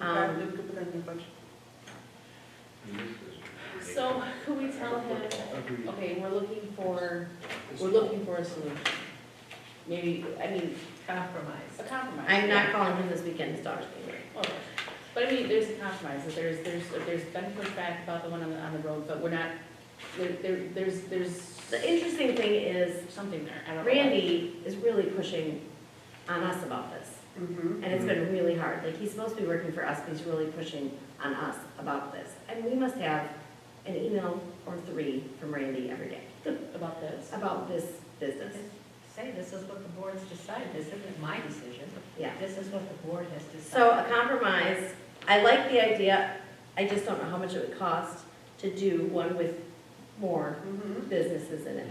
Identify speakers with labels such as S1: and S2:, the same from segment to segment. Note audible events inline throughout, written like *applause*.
S1: Um,
S2: maybe we could put that in the budget.
S3: So could we tell him,
S4: Agreed.
S3: okay, we're looking for, we're looking for a solution. Maybe, I mean,
S5: Compromise.
S3: a compromise.
S1: I'm not calling him this weekend, his daughter's being married.
S3: Well, But I mean, there's a compromise, that there's, there's, there's been pushback about the one on the, on the road, but we're not, there, there, there's, there's
S1: The interesting thing is
S3: something there, I don't know.
S1: Randy is really pushing on us about this.
S2: Mm-hmm.
S1: And it's been really hard. Like, he's supposed to be working for us, but he's really pushing on us about this. And we must have an email or three from Randy every day
S3: About this.
S1: about this business.
S5: Say, this is what the board's decided, this isn't my decision.
S1: Yeah.
S5: This is what the board has
S1: So
S5: decided.
S1: a compromise, I like the idea, I just don't know how much it would cost to do one with more
S2: Mm-hmm.
S1: businesses in it.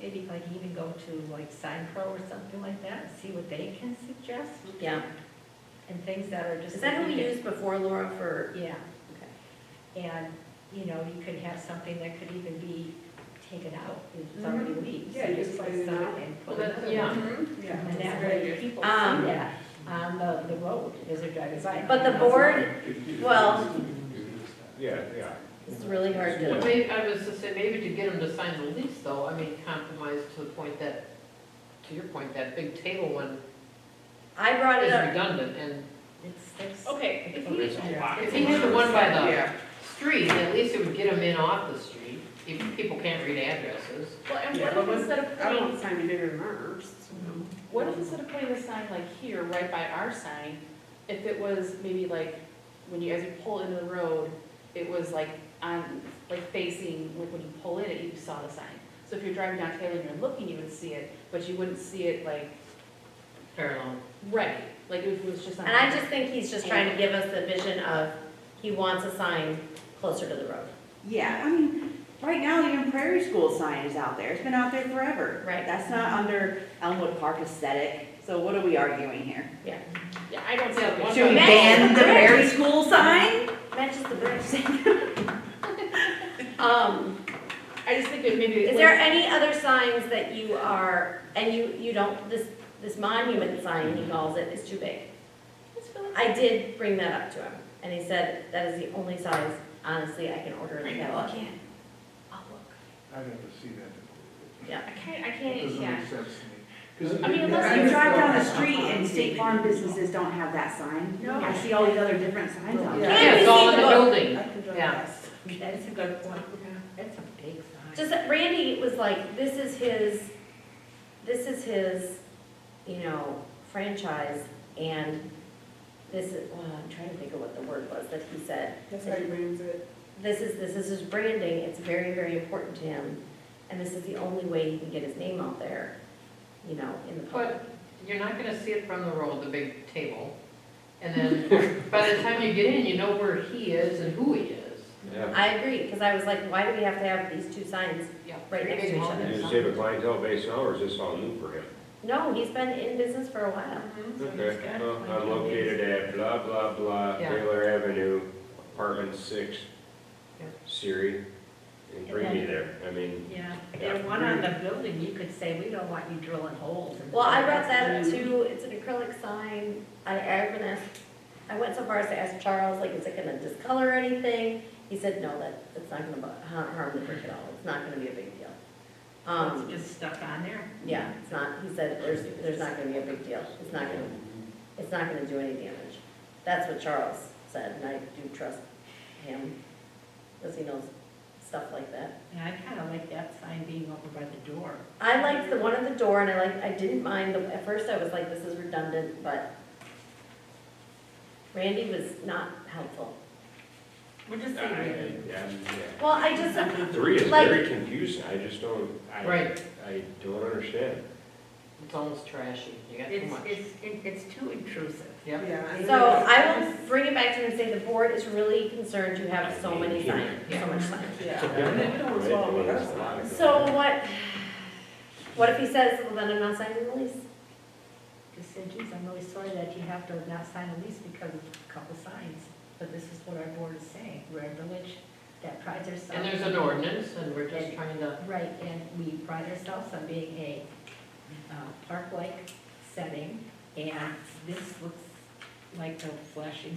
S5: Maybe like even go to like Sign Pro or something like that, and see what they can suggest,
S1: Yeah.
S5: and things that are just.
S1: Is that who we used before, Laura, for?
S5: Yeah.
S1: Okay.
S5: And, you know, you could have something that could even be taken out,
S1: Mm-hmm.
S5: it's already leaves,
S2: Yeah,
S5: you
S2: just
S5: just like
S2: put it in
S5: sign
S2: there.
S5: and
S3: Well,
S5: put it
S3: that-
S5: in.
S3: yeah.
S2: Yeah.
S5: And that way people see
S1: Um,
S5: that on the, the road as they're driving by.
S1: But the board, well,
S4: Yeah, yeah.
S1: it's really hard
S6: Well,
S1: to,
S6: maybe, I was to say, maybe to get them to sign the lease though, I mean, compromise to the point that, to your point, that big table one
S1: I brought it
S6: is
S1: up,
S6: redundant and
S5: It's, it's.
S3: Okay, if he,
S6: if he had the one by the street, at least it would get them in off the street, if people can't read addresses.
S3: well, and
S2: Yeah, but
S3: what if instead of
S2: I don't
S3: putting,
S2: want to sign any bigger than ours.
S3: what if instead of putting the sign like here, right by our sign, if it was maybe like, when you, as you pull into the road, it was like on, like facing, like when you pull in it, you saw the sign. So if you're driving down Taylor and you're looking, you would see it, but you wouldn't see it like,
S6: Parallel.
S3: right, like if it was just on.
S1: and I just think he's just trying to give us the vision of, he wants a sign closer to the road.
S7: Yeah, I mean, right now even Prairie School sign is out there. It's been out there forever.
S1: Right.
S7: That's not under Elmwood Park aesthetic. So what are we arguing here?
S3: Yeah, I don't see that one.
S7: Should we
S1: Matches
S7: ban
S1: the
S7: the Prairie School sign?
S1: Matches the bridge. *laughs* Um,
S3: I just think that maybe.
S1: is there any other signs that you are, and you, you don't, this, this monument sign, he calls it, is too big? I did bring that up to him, and he said, that is the only size, honestly, I can order in the catalog.
S5: I'll look.
S4: I never see that.
S3: I can't, I
S4: It
S3: can't,
S4: doesn't
S3: yeah.
S4: make sense to me. 'Cause
S3: I mean,
S4: it-
S3: unless
S7: You drive down the street and State Farm businesses don't have that sign.
S5: No.
S7: I see all these other different signs out there.
S2: Yeah.
S6: Yeah, it's all in the
S1: Can we
S6: building.
S2: I can drive
S6: Yeah.
S2: fast.
S5: That is a good point. That's a big sign.
S1: Just, that Randy was like, this is his, this is his, you know, franchise, and this is, well, I'm trying to think of what the word was that he said.
S2: That's how he brings it.
S1: This is, this is his branding, it's very, very important to him, and this is the only way he can get his name out there, you know, in the public.
S6: But you're not gonna see it from the road, the big table. And then, by the time you get in, you know where he is and who he is.
S8: Yeah,
S1: I agree, because I was like, why do we have to have these two signs?
S6: Yeah.
S1: Right next to each other.
S8: and you say the clientele base now, or is this all new for him?
S1: No, he's been in business for a
S6: Mm-hmm.
S1: while.
S8: Okay, well, I'm located at blah, blah, blah,
S6: Yeah.
S8: Taylor Avenue, apartment six,
S6: Yeah.
S8: Siri, and bring me there, I mean,
S5: Yeah, and one on the building, you could say, we don't want you drilling holes. and-
S1: Well, I brought that up too, it's an acrylic sign, I, I even asked, I went so far as to ask Charles, like, is it gonna discolor anything? He said, no, that, it's not gonna bu- ha- harm the brick at all, it's not gonna be a big deal.
S5: It's
S1: Um,
S5: just stuck on there.
S1: yeah, it's not, he said, there's, there's not gonna be a big deal, it's not gonna, it's not gonna do any damage. That's what Charles said, and I do trust him, because he knows stuff like that.
S5: And I kind of like that sign being over by the door.
S1: I liked the one at the door, and I liked, I didn't mind, the at first I was like, this is redundant, but Randy was not helpful.
S5: We're just
S8: I, I,
S5: saying,
S8: yeah.
S1: Well, I just,
S8: Three is
S1: Like-
S8: very confusing, I just don't, I,
S6: Right.
S8: I don't understand.
S6: It's almost trashy, you got too
S5: it's,
S6: much.
S5: it's, it's too intrusive.
S6: Yep.
S2: Yeah.
S1: so I will bring it back to him and say, the board is really concerned you have so many signs, so much sign.
S2: Yeah. And then we don't swallow the rest of it.
S1: So what, what if he says, well, then I'm not signing the lease?
S5: Just say, geez, I'm really sorry that you have to not sign a lease because of a couple signs, but this is what our board is saying. We're a village that prides ourselves.
S6: And there's an ordinance, and we're just trying to
S5: Right, and we pride ourselves on being a uh, park-like setting, and this looks like the flashing